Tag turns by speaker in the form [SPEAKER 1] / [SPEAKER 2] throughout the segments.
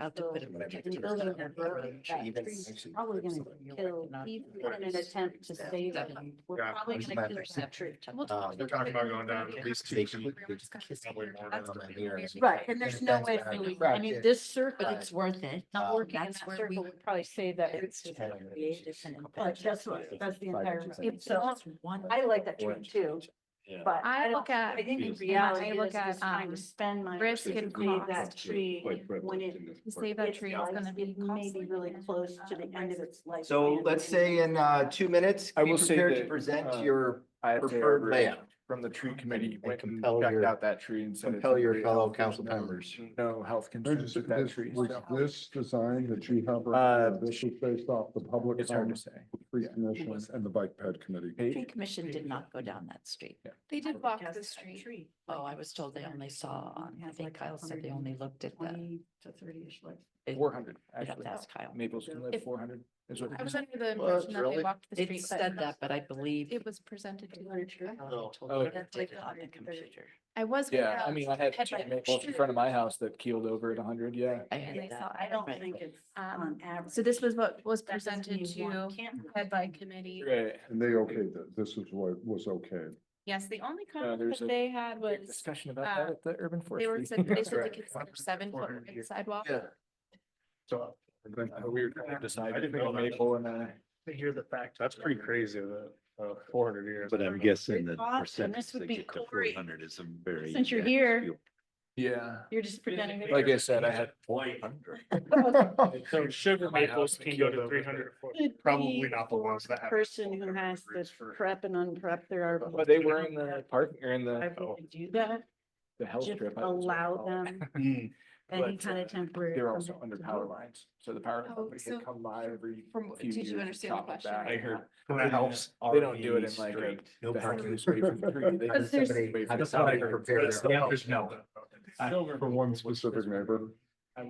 [SPEAKER 1] I'll have to put it- the building and burn that tree's Probably gonna kill, even in an attempt to save it, we're
[SPEAKER 2] Yeah.
[SPEAKER 1] probably gonna kill that tree.
[SPEAKER 2] Uh, They're talking about going down at least two
[SPEAKER 3] They
[SPEAKER 2] feet.
[SPEAKER 3] could- they could kiss me
[SPEAKER 2] Probably
[SPEAKER 3] there.
[SPEAKER 2] more
[SPEAKER 3] That's
[SPEAKER 2] than
[SPEAKER 3] gonna
[SPEAKER 2] that
[SPEAKER 3] be
[SPEAKER 2] here.
[SPEAKER 3] weird.
[SPEAKER 1] Right, and there's no way of
[SPEAKER 2] Right.
[SPEAKER 1] really, I mean, this circle,
[SPEAKER 3] Right.
[SPEAKER 1] it's worth it,
[SPEAKER 3] Uh,
[SPEAKER 1] not working in
[SPEAKER 3] that's
[SPEAKER 1] that
[SPEAKER 3] where
[SPEAKER 1] circle
[SPEAKER 3] we-
[SPEAKER 1] would probably say that it's just
[SPEAKER 3] Ten
[SPEAKER 1] creative
[SPEAKER 3] years.
[SPEAKER 1] and.
[SPEAKER 3] Couple
[SPEAKER 1] But that's what,
[SPEAKER 3] years.
[SPEAKER 1] that's the
[SPEAKER 3] Five
[SPEAKER 1] entire.
[SPEAKER 3] years.
[SPEAKER 1] It's just one. I like that tree
[SPEAKER 3] Orange.
[SPEAKER 1] too, but.
[SPEAKER 4] I
[SPEAKER 1] don't-
[SPEAKER 4] look at-
[SPEAKER 1] I think in
[SPEAKER 3] Yes.
[SPEAKER 1] reality,
[SPEAKER 4] I
[SPEAKER 1] is
[SPEAKER 4] look
[SPEAKER 1] just
[SPEAKER 4] at,
[SPEAKER 1] trying
[SPEAKER 4] um,
[SPEAKER 1] to spend my.
[SPEAKER 4] risk
[SPEAKER 1] to
[SPEAKER 4] and
[SPEAKER 1] save That
[SPEAKER 4] cost.
[SPEAKER 1] tree when it.
[SPEAKER 4] To save that tree is
[SPEAKER 1] life,
[SPEAKER 4] gonna be
[SPEAKER 1] it may
[SPEAKER 4] costly.
[SPEAKER 1] be really close to the end of its life.
[SPEAKER 3] So let's say in uh two minutes,
[SPEAKER 5] I
[SPEAKER 3] be
[SPEAKER 5] will say
[SPEAKER 3] prepared to
[SPEAKER 5] that,
[SPEAKER 3] present
[SPEAKER 5] uh,
[SPEAKER 3] your
[SPEAKER 5] I have to
[SPEAKER 3] preferred
[SPEAKER 5] agree
[SPEAKER 3] layout.
[SPEAKER 5] From the tree committee, went and
[SPEAKER 3] compel
[SPEAKER 5] checked
[SPEAKER 3] your-
[SPEAKER 5] out that tree and said. it's
[SPEAKER 3] compel your
[SPEAKER 5] okay,
[SPEAKER 3] fellow
[SPEAKER 5] there's
[SPEAKER 3] council
[SPEAKER 5] no-
[SPEAKER 3] members.
[SPEAKER 5] No health concerns
[SPEAKER 6] There's,
[SPEAKER 5] with that
[SPEAKER 6] this,
[SPEAKER 5] tree.
[SPEAKER 6] was
[SPEAKER 5] so
[SPEAKER 6] this design, the tree hopper,
[SPEAKER 5] Uh,
[SPEAKER 6] this was based off the public
[SPEAKER 5] It's hard to
[SPEAKER 6] comment,
[SPEAKER 5] say.
[SPEAKER 6] tree
[SPEAKER 5] yeah.
[SPEAKER 6] commission and the bike ped committee.
[SPEAKER 1] Tree commission did not go down that street.
[SPEAKER 4] They
[SPEAKER 1] I
[SPEAKER 4] did
[SPEAKER 1] would
[SPEAKER 4] walk
[SPEAKER 1] guess
[SPEAKER 4] the
[SPEAKER 1] that
[SPEAKER 4] street.
[SPEAKER 1] tree, Oh, I was told they only saw, on- I think Kyle said they only looked at the. To thirty-ish life.
[SPEAKER 5] Four hundred,
[SPEAKER 1] Yeah,
[SPEAKER 5] actually.
[SPEAKER 1] that's Kyle.
[SPEAKER 5] Maples can live
[SPEAKER 4] If-
[SPEAKER 5] four hundred. is what
[SPEAKER 4] I
[SPEAKER 5] it
[SPEAKER 4] was
[SPEAKER 5] is.
[SPEAKER 4] under the
[SPEAKER 3] Well,
[SPEAKER 4] impression that
[SPEAKER 3] really?
[SPEAKER 4] they walked the
[SPEAKER 1] It
[SPEAKER 4] street. but
[SPEAKER 1] said that, but I believe.
[SPEAKER 4] It was presented to me.
[SPEAKER 1] Kyle told
[SPEAKER 5] Oh,
[SPEAKER 1] me
[SPEAKER 5] okay.
[SPEAKER 1] that they did on the computer.
[SPEAKER 4] I was.
[SPEAKER 5] Yeah, I mean, I had
[SPEAKER 4] had
[SPEAKER 5] two
[SPEAKER 4] like
[SPEAKER 5] maples in
[SPEAKER 4] shoot.
[SPEAKER 5] front of my house that keeled over at hundred, yeah.
[SPEAKER 1] I
[SPEAKER 4] And I
[SPEAKER 1] heard
[SPEAKER 4] saw-
[SPEAKER 1] that.
[SPEAKER 4] I don't
[SPEAKER 1] Right.
[SPEAKER 4] think
[SPEAKER 1] it's
[SPEAKER 4] Um, so this was what was presented to head by
[SPEAKER 1] committee.
[SPEAKER 4] committee.
[SPEAKER 5] Right.
[SPEAKER 6] And they okayed that, this is what was okay.
[SPEAKER 4] Yes, the only
[SPEAKER 5] Uh, there's
[SPEAKER 4] comment that
[SPEAKER 5] a
[SPEAKER 4] they had
[SPEAKER 5] Big
[SPEAKER 4] was
[SPEAKER 5] Discussion about that
[SPEAKER 4] uh,
[SPEAKER 5] at the urban
[SPEAKER 4] they were,
[SPEAKER 5] forestry.
[SPEAKER 4] said they said they
[SPEAKER 2] right.
[SPEAKER 4] consider seven foot wide sidewalk.
[SPEAKER 3] Yeah.
[SPEAKER 2] So.
[SPEAKER 5] We were trying to
[SPEAKER 2] I
[SPEAKER 5] decide
[SPEAKER 2] didn't
[SPEAKER 5] between a
[SPEAKER 2] know that.
[SPEAKER 5] maple and a.
[SPEAKER 2] To hear the fact. That's pretty crazy, the, uh, four hundred years.
[SPEAKER 7] But I'm guessing
[SPEAKER 1] Great
[SPEAKER 7] the
[SPEAKER 1] thoughts, and
[SPEAKER 7] percentage
[SPEAKER 1] this would
[SPEAKER 7] to
[SPEAKER 1] be
[SPEAKER 7] get to four
[SPEAKER 1] Corey.
[SPEAKER 7] hundred is a very.
[SPEAKER 1] Since you're
[SPEAKER 7] that's
[SPEAKER 1] here.
[SPEAKER 7] few-
[SPEAKER 5] Yeah.
[SPEAKER 1] You're just presenting. it.
[SPEAKER 5] Like I said, I had
[SPEAKER 7] Four hundred.
[SPEAKER 2] So sugar
[SPEAKER 5] My
[SPEAKER 2] maples
[SPEAKER 5] house
[SPEAKER 2] can go
[SPEAKER 5] killed
[SPEAKER 2] to
[SPEAKER 5] over
[SPEAKER 2] three hundred foot.
[SPEAKER 1] Could
[SPEAKER 2] Probably
[SPEAKER 1] be
[SPEAKER 2] not the ones
[SPEAKER 1] for
[SPEAKER 2] that have
[SPEAKER 1] Person
[SPEAKER 2] full
[SPEAKER 1] who has the
[SPEAKER 2] coverage for-
[SPEAKER 1] prep and unprep, there are.
[SPEAKER 5] But they were in the park or in
[SPEAKER 1] I
[SPEAKER 5] the, oh,
[SPEAKER 1] would do that,
[SPEAKER 5] the health
[SPEAKER 1] just
[SPEAKER 5] strip. I was
[SPEAKER 1] allow
[SPEAKER 5] like, oh.
[SPEAKER 1] them
[SPEAKER 2] Mm.
[SPEAKER 1] any
[SPEAKER 5] But,
[SPEAKER 1] kind
[SPEAKER 5] uh,
[SPEAKER 1] of temporary.
[SPEAKER 5] They're also under
[SPEAKER 1] permit to
[SPEAKER 5] power
[SPEAKER 1] do it.
[SPEAKER 5] lines, so the power
[SPEAKER 4] Oh,
[SPEAKER 5] company
[SPEAKER 4] so
[SPEAKER 5] had come by every
[SPEAKER 4] from-
[SPEAKER 5] few
[SPEAKER 4] did you
[SPEAKER 5] years. and
[SPEAKER 4] understand the
[SPEAKER 5] chop it
[SPEAKER 4] question?
[SPEAKER 5] back.
[SPEAKER 4] I
[SPEAKER 2] heard-
[SPEAKER 5] They don't- They don't do it in like a.
[SPEAKER 3] No
[SPEAKER 5] the heck
[SPEAKER 3] parking.
[SPEAKER 5] is way from the tree. They
[SPEAKER 1] Because
[SPEAKER 5] just
[SPEAKER 1] there's-
[SPEAKER 5] somebody way from
[SPEAKER 3] That's
[SPEAKER 5] the
[SPEAKER 3] how I
[SPEAKER 5] side.
[SPEAKER 3] prepare their-
[SPEAKER 2] Yeah, there's no.
[SPEAKER 5] I-
[SPEAKER 6] For one specific neighbor.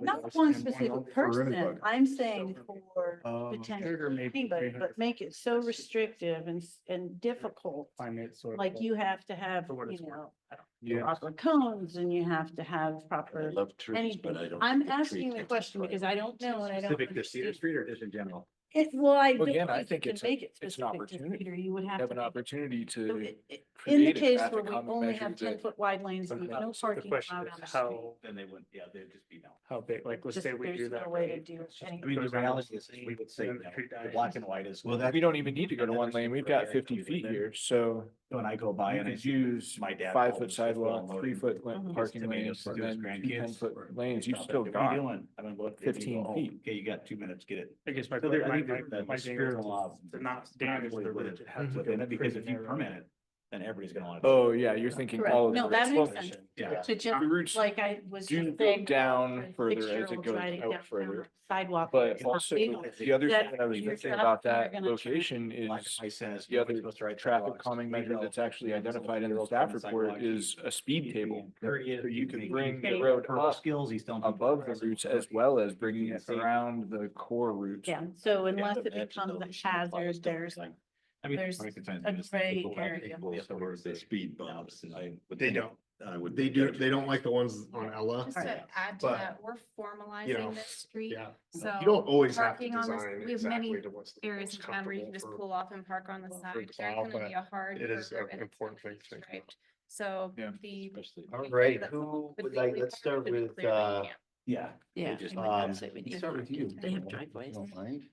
[SPEAKER 1] Not one specific
[SPEAKER 6] For
[SPEAKER 1] person,
[SPEAKER 6] anybody.
[SPEAKER 1] I'm saying for
[SPEAKER 5] Oh,
[SPEAKER 1] potential anybody, but make it so restrictive and, s- and difficult. Like you have to have,
[SPEAKER 2] For what it's
[SPEAKER 1] you know,
[SPEAKER 5] Yeah.
[SPEAKER 1] proper cones and you have to have
[SPEAKER 7] I
[SPEAKER 1] proper.
[SPEAKER 7] love trees, but I
[SPEAKER 1] Anything.
[SPEAKER 7] don't.
[SPEAKER 1] I'm
[SPEAKER 7] think a tree
[SPEAKER 1] asking the
[SPEAKER 7] can
[SPEAKER 1] question
[SPEAKER 7] survive.
[SPEAKER 1] because I don't know and I don't.
[SPEAKER 3] Specific to Cedar
[SPEAKER 1] understand.
[SPEAKER 3] Street or just in general?
[SPEAKER 1] It, well, I.
[SPEAKER 5] Well, again, I
[SPEAKER 1] you
[SPEAKER 5] think
[SPEAKER 1] can
[SPEAKER 5] it's a-
[SPEAKER 1] Make it
[SPEAKER 5] it's an
[SPEAKER 1] specific to
[SPEAKER 5] opportunity.
[SPEAKER 1] Peter, you would have
[SPEAKER 5] Have
[SPEAKER 1] to.
[SPEAKER 5] an
[SPEAKER 1] make it-
[SPEAKER 5] opportunity
[SPEAKER 1] so
[SPEAKER 5] to,
[SPEAKER 1] it- it- In the
[SPEAKER 5] create a
[SPEAKER 1] case where
[SPEAKER 5] traffic
[SPEAKER 1] we
[SPEAKER 5] calming
[SPEAKER 1] only
[SPEAKER 5] measure
[SPEAKER 1] have ten
[SPEAKER 5] that-
[SPEAKER 1] foot wide lanes and
[SPEAKER 5] Something
[SPEAKER 1] no
[SPEAKER 2] else. The
[SPEAKER 1] parking
[SPEAKER 2] question
[SPEAKER 1] allowed
[SPEAKER 2] is
[SPEAKER 1] on the
[SPEAKER 2] how-
[SPEAKER 1] street.
[SPEAKER 3] Then they wouldn't, yeah, they'd just be no.
[SPEAKER 2] How big, like, let's
[SPEAKER 1] Just
[SPEAKER 2] say we
[SPEAKER 1] there's no
[SPEAKER 2] do that.
[SPEAKER 1] way to do any-
[SPEAKER 3] I mean, the reality is, we would say,
[SPEAKER 2] And
[SPEAKER 3] no.
[SPEAKER 2] the tree
[SPEAKER 3] The
[SPEAKER 2] dies.
[SPEAKER 3] black and white is.
[SPEAKER 5] well, that, we don't even need to go to one lane. We've got fifty feet here, so
[SPEAKER 3] When I go by
[SPEAKER 5] you
[SPEAKER 3] and I
[SPEAKER 5] could
[SPEAKER 3] see
[SPEAKER 5] use
[SPEAKER 3] my dad
[SPEAKER 5] five
[SPEAKER 3] always
[SPEAKER 5] foot
[SPEAKER 3] just
[SPEAKER 5] sidewalk,
[SPEAKER 3] unloading
[SPEAKER 5] three foot la-
[SPEAKER 1] his
[SPEAKER 5] parking
[SPEAKER 3] tomatoes
[SPEAKER 5] lanes,
[SPEAKER 3] to
[SPEAKER 5] and
[SPEAKER 3] his
[SPEAKER 5] then two ten
[SPEAKER 3] grandkids or-
[SPEAKER 5] foot lanes.
[SPEAKER 3] Stop
[SPEAKER 5] You've
[SPEAKER 3] it.
[SPEAKER 5] still
[SPEAKER 3] What are you
[SPEAKER 5] got.
[SPEAKER 3] doing? I'm gonna look. at you and
[SPEAKER 5] 15
[SPEAKER 3] go, "Oh,
[SPEAKER 5] feet.
[SPEAKER 3] Okay, you got two minutes, get it.
[SPEAKER 2] I guess my,
[SPEAKER 3] So there- I
[SPEAKER 2] my,
[SPEAKER 3] think
[SPEAKER 2] my,
[SPEAKER 3] there- the-
[SPEAKER 2] my
[SPEAKER 3] the
[SPEAKER 2] danger
[SPEAKER 3] spirit
[SPEAKER 2] is
[SPEAKER 3] law
[SPEAKER 2] to not damage
[SPEAKER 3] probably
[SPEAKER 2] the
[SPEAKER 3] wouldn't
[SPEAKER 2] village. It has to
[SPEAKER 3] within
[SPEAKER 2] go
[SPEAKER 3] it, Because if
[SPEAKER 2] pretty
[SPEAKER 3] you
[SPEAKER 2] narrow.
[SPEAKER 3] permit it, then everybody's gonna want.
[SPEAKER 5] Oh, yeah, you're thinking
[SPEAKER 1] Correct.
[SPEAKER 5] all of.
[SPEAKER 1] No,
[SPEAKER 5] the
[SPEAKER 1] that
[SPEAKER 5] routes.
[SPEAKER 1] makes sense.
[SPEAKER 3] Yeah.
[SPEAKER 1] To
[SPEAKER 5] The
[SPEAKER 1] just,
[SPEAKER 5] routes
[SPEAKER 1] like I was
[SPEAKER 5] do
[SPEAKER 1] just
[SPEAKER 5] go
[SPEAKER 1] saying.
[SPEAKER 5] down
[SPEAKER 1] for a
[SPEAKER 5] further as it
[SPEAKER 1] six-year-old
[SPEAKER 5] goes
[SPEAKER 1] driving
[SPEAKER 5] out
[SPEAKER 1] down
[SPEAKER 5] further,
[SPEAKER 1] the Sidewalk.
[SPEAKER 5] But
[SPEAKER 1] It's
[SPEAKER 5] also,
[SPEAKER 1] illegal.
[SPEAKER 5] the other
[SPEAKER 1] That
[SPEAKER 5] thing that I was
[SPEAKER 1] you're
[SPEAKER 5] thinking
[SPEAKER 1] not-
[SPEAKER 5] about
[SPEAKER 1] you're
[SPEAKER 5] that
[SPEAKER 1] gonna try-
[SPEAKER 5] location
[SPEAKER 3] Black
[SPEAKER 5] is
[SPEAKER 3] and white says
[SPEAKER 5] the
[SPEAKER 3] nobody's
[SPEAKER 5] other
[SPEAKER 3] supposed to ride
[SPEAKER 5] traffic
[SPEAKER 3] sidewalks.
[SPEAKER 5] calming
[SPEAKER 3] We
[SPEAKER 5] measure
[SPEAKER 3] know
[SPEAKER 5] that's actually
[SPEAKER 3] it's a
[SPEAKER 5] identified in the
[SPEAKER 3] little
[SPEAKER 5] staff
[SPEAKER 3] bit
[SPEAKER 5] report
[SPEAKER 3] sidewalk.
[SPEAKER 5] is a speed table.
[SPEAKER 3] Curious,
[SPEAKER 5] So you
[SPEAKER 3] can
[SPEAKER 5] can
[SPEAKER 3] make-
[SPEAKER 5] bring the
[SPEAKER 1] Okay.
[SPEAKER 5] road
[SPEAKER 3] Verbal
[SPEAKER 5] up
[SPEAKER 3] skills, he's don't.
[SPEAKER 5] above the routes as well as bringing
[SPEAKER 3] Yeah,
[SPEAKER 5] it
[SPEAKER 3] see.
[SPEAKER 5] around the core routes.
[SPEAKER 1] Yeah, so unless it
[SPEAKER 3] Imagine
[SPEAKER 1] becomes
[SPEAKER 3] those
[SPEAKER 1] a hazard, there's,
[SPEAKER 3] like- I mean.
[SPEAKER 1] there's
[SPEAKER 3] most of the time
[SPEAKER 1] a
[SPEAKER 3] it's the people
[SPEAKER 1] gray
[SPEAKER 3] who have
[SPEAKER 1] area.
[SPEAKER 3] tables
[SPEAKER 7] Yes,
[SPEAKER 3] or
[SPEAKER 7] there were
[SPEAKER 3] they-
[SPEAKER 7] the speed
[SPEAKER 3] No,
[SPEAKER 7] bumps.
[SPEAKER 3] I would
[SPEAKER 2] They
[SPEAKER 3] think
[SPEAKER 2] don't,
[SPEAKER 7] I would.
[SPEAKER 2] they do, they don't like the ones on Ella.
[SPEAKER 4] Just to add to
[SPEAKER 2] But,
[SPEAKER 4] that, we're
[SPEAKER 2] you know,
[SPEAKER 4] formalizing this street,
[SPEAKER 2] Yeah.
[SPEAKER 4] so.
[SPEAKER 2] You don't always have to
[SPEAKER 4] parking on this-
[SPEAKER 2] design
[SPEAKER 4] we have many
[SPEAKER 2] exactly to what's. the
[SPEAKER 4] areas in
[SPEAKER 2] most
[SPEAKER 4] town where you can just
[SPEAKER 2] comfortable for-
[SPEAKER 4] pull off and park on the
[SPEAKER 2] for
[SPEAKER 4] side.
[SPEAKER 2] the
[SPEAKER 4] There's
[SPEAKER 2] plow,
[SPEAKER 4] gonna
[SPEAKER 2] but
[SPEAKER 4] be a hard.
[SPEAKER 2] it is
[SPEAKER 4] curve
[SPEAKER 2] an
[SPEAKER 4] and it's
[SPEAKER 2] important
[SPEAKER 4] gonna
[SPEAKER 2] thing
[SPEAKER 4] be
[SPEAKER 2] to think about.
[SPEAKER 4] striped. So
[SPEAKER 5] Yeah.
[SPEAKER 4] the.
[SPEAKER 3] Especially.
[SPEAKER 4] we-
[SPEAKER 3] All
[SPEAKER 4] right,
[SPEAKER 3] right,
[SPEAKER 4] that's
[SPEAKER 3] who
[SPEAKER 4] would
[SPEAKER 3] would
[SPEAKER 4] legally
[SPEAKER 3] like, let's
[SPEAKER 4] park
[SPEAKER 3] start
[SPEAKER 4] should be
[SPEAKER 3] with,
[SPEAKER 4] clear right
[SPEAKER 3] uh,
[SPEAKER 4] here.
[SPEAKER 3] yeah.
[SPEAKER 1] yeah.
[SPEAKER 3] just,
[SPEAKER 1] I mean, that's
[SPEAKER 3] um,
[SPEAKER 1] what we need.
[SPEAKER 3] Start with you.
[SPEAKER 1] They have driveways.
[SPEAKER 3] Don't mind.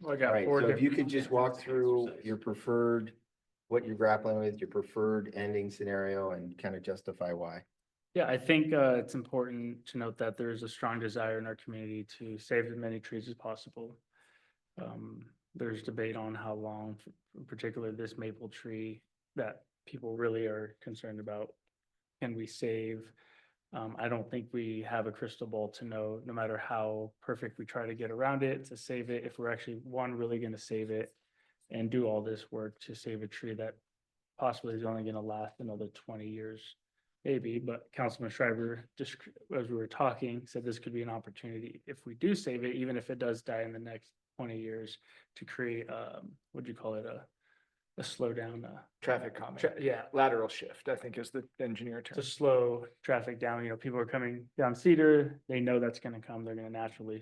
[SPEAKER 2] Well, I
[SPEAKER 3] All
[SPEAKER 2] got
[SPEAKER 3] right,
[SPEAKER 2] four
[SPEAKER 3] so if you
[SPEAKER 2] different,
[SPEAKER 3] could just walk through your preferred, what you're grappling with, your preferred ending scenario and kind of justify why.
[SPEAKER 8] Yeah, I think uh, it's important to note that there is a strong desire in our community to save as many trees as possible. Um, There's debate on how long, in particular this maple tree that people really are concerned about. Can we save? Um, I don't think we have a crystal ball to know, no matter how perfect we try to get around it to save it, if we're actually, one, really going to save it and do all this work to save a tree that possibly is only going to last another twenty years maybe, but Councilman Schreiber, just as we were talking, said this could be an opportunity, if we do save it, even if it does die in the next twenty years, to create, um, what do you call it, a a slow down, uh,
[SPEAKER 5] Traffic comment.
[SPEAKER 8] tra- yeah,
[SPEAKER 5] Lateral shift, I think is the engineer term.
[SPEAKER 8] to slow traffic down, you know, people are coming down Cedar, they know that's gonna come, they're gonna naturally